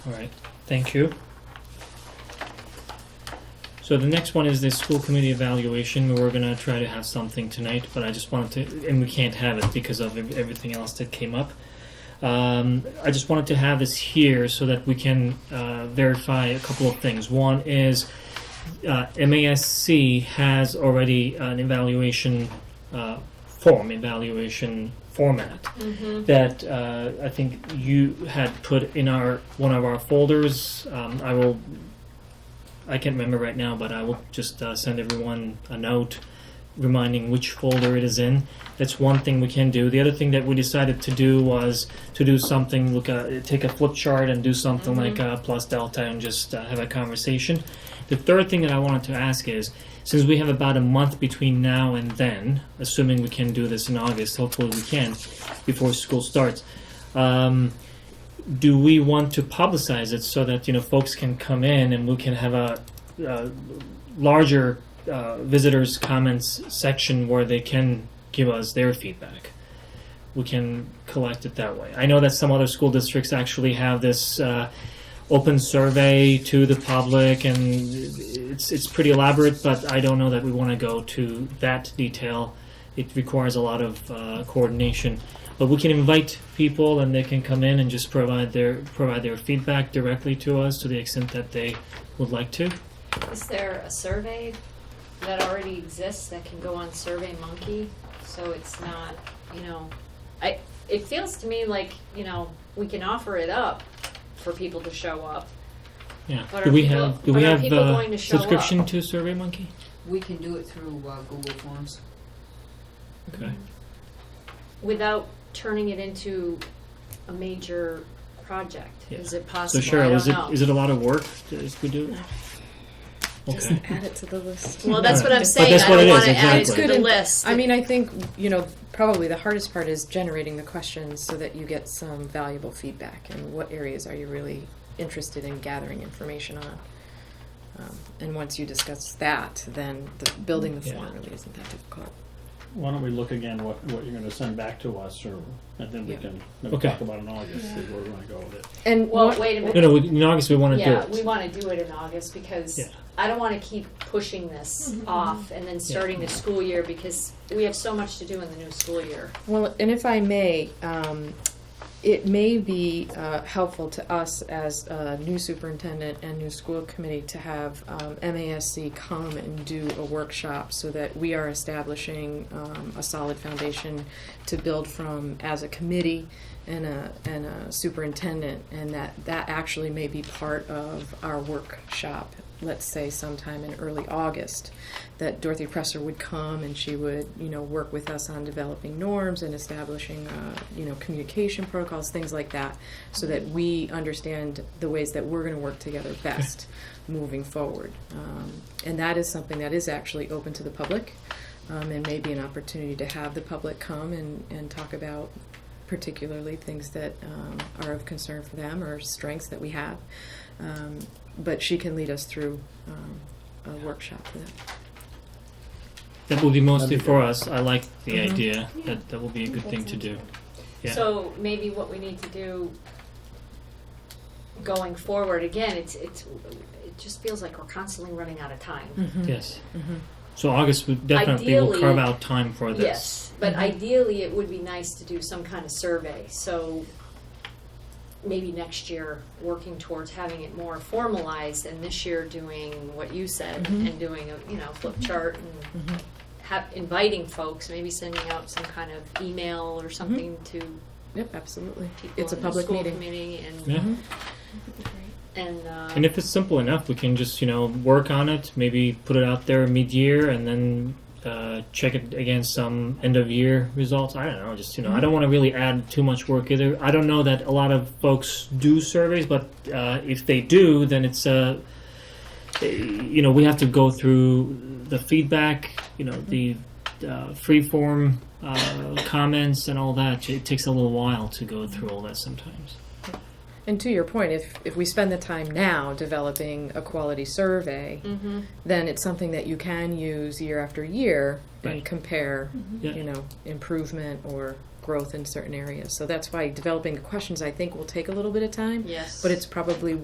All right, thank you. So the next one is the school committee evaluation. We were gonna try to have something tonight, but I just wanted to, and we can't have it because of ev- everything else that came up. Um, I just wanted to have this here so that we can uh, verify a couple of things. One is uh, MASC has already an evaluation uh, form, evaluation format that uh, I think you had put in our one of our folders. Um, I will. I can't remember right now, but I will just uh, send everyone a note reminding which folder it is in. That's one thing we can do. The other thing that we decided to do was to do something, look at, take a flip chart and do something like uh, plus delta and just uh, have a conversation. The third thing that I wanted to ask is since we have about a month between now and then, assuming we can do this in August, hopefully we can, before school starts. Um, do we want to publicize it so that you know folks can come in and we can have a uh, larger uh, visitors comments section where they can give us their feedback? We can collect it that way. I know that some other school districts actually have this. Uh, open survey to the public, and it's it's pretty elaborate. But I don't know that we want to go to that detail. It requires a lot of uh, coordination. But we can invite people, and they can come in and just provide their provide their feedback directly to us to the extent that they would like to. Is there a survey that already exists that can go on Survey Monkey? So it's not, you know, I, it feels to me like, you know, we can offer it up for people to show up. Yeah. But do are we people- have do but we are have people uh, going to show subscription to SurveyMonkey? We can do it through uh, Google Forms. Okay. Without turning it into a major project. Is it So possible? I Cheryl, is don't it know. is it a lot of work if we do? Okay. Just add it to the list. Well, that's what I'm But saying. that's I what don't it is, want to add it exactly. to the list. I mean, I think, you know, probably the hardest part is generating the questions so that you get some valuable feedback and what areas are you really interested in gathering information on. Um, and once you discuss that, then the, building the Yeah. form really isn't that difficult. Why don't we look again what, what you're gonna send back to us or, and then we Yeah. can, maybe Okay. talk about it in August, see where we're gonna go with it. And Well, what- wait a minute. No, no. We, in August we want to Yeah, do it. we want to do it in August because Yeah. I don't want to keep pushing this off and then starting the school year because we have so much to do in the new school year. Well, and if I may, um, it may be uh, helpful to us as a new superintendent and new school committee to have um, MASC come and do a workshop so that we are establishing um, a solid foundation to build from as a committee and a, and a superintendent, and that, that actually may be part of our workshop, let's say sometime in early August, that Dorothy Presser would come and she would, you know, work with us on developing norms and establishing, uh, you know, communication protocols, things like that, so that we understand the ways that we're going to work together best moving forward. Um, and that is something that is actually open to the public. Um, and maybe an opportunity to have the public come and, and talk about particularly things that um, are of concern for them or strengths that we have. Um, but she can lead us through um, a workshop for that. That will be mostly That'd be for us. I like the Mhm. idea. That that will be a good thing to do. Yeah. Mm-hmm. So maybe what we need to do going forward, again, it's, it's, it just feels like we're constantly running out of time. Yes. Mhm. So August would definitely will Mm-hmm. Ideally- carve out time for this. Yes, but Mhm. ideally, it would be nice to do some kind of survey, so maybe next year, working towards having it more formalized, and this year doing what you said, Mhm. and doing a, you know, flip Mm-hmm. chart and have, inviting folks, maybe sending out some kind of email or something to Yep, absolutely. people Mm-hmm. It's a in the public school meeting. committee and, Yeah. Mhm. and, uh, And if it's simple enough, we can just you know work on it. Maybe put it out there mid-year, and then uh, check it against some end-of-year results. I don't know. Just you know, I don't want to really add too much work either. I don't know that a lot of folks do surveys, but uh, if they do, then it's uh, eh, you know we have to go through the feedback. You know the uh, free-form uh, comments and all that. It takes a little while to go through all that sometimes. And to your point, if, if we spend the time now developing a quality survey, Mhm. then it's something that you can use year after year Right. and compare, Yeah. you know, improvement or growth in certain areas. So that's why developing the questions, I think, will take a little bit of time, Yes. but it's probably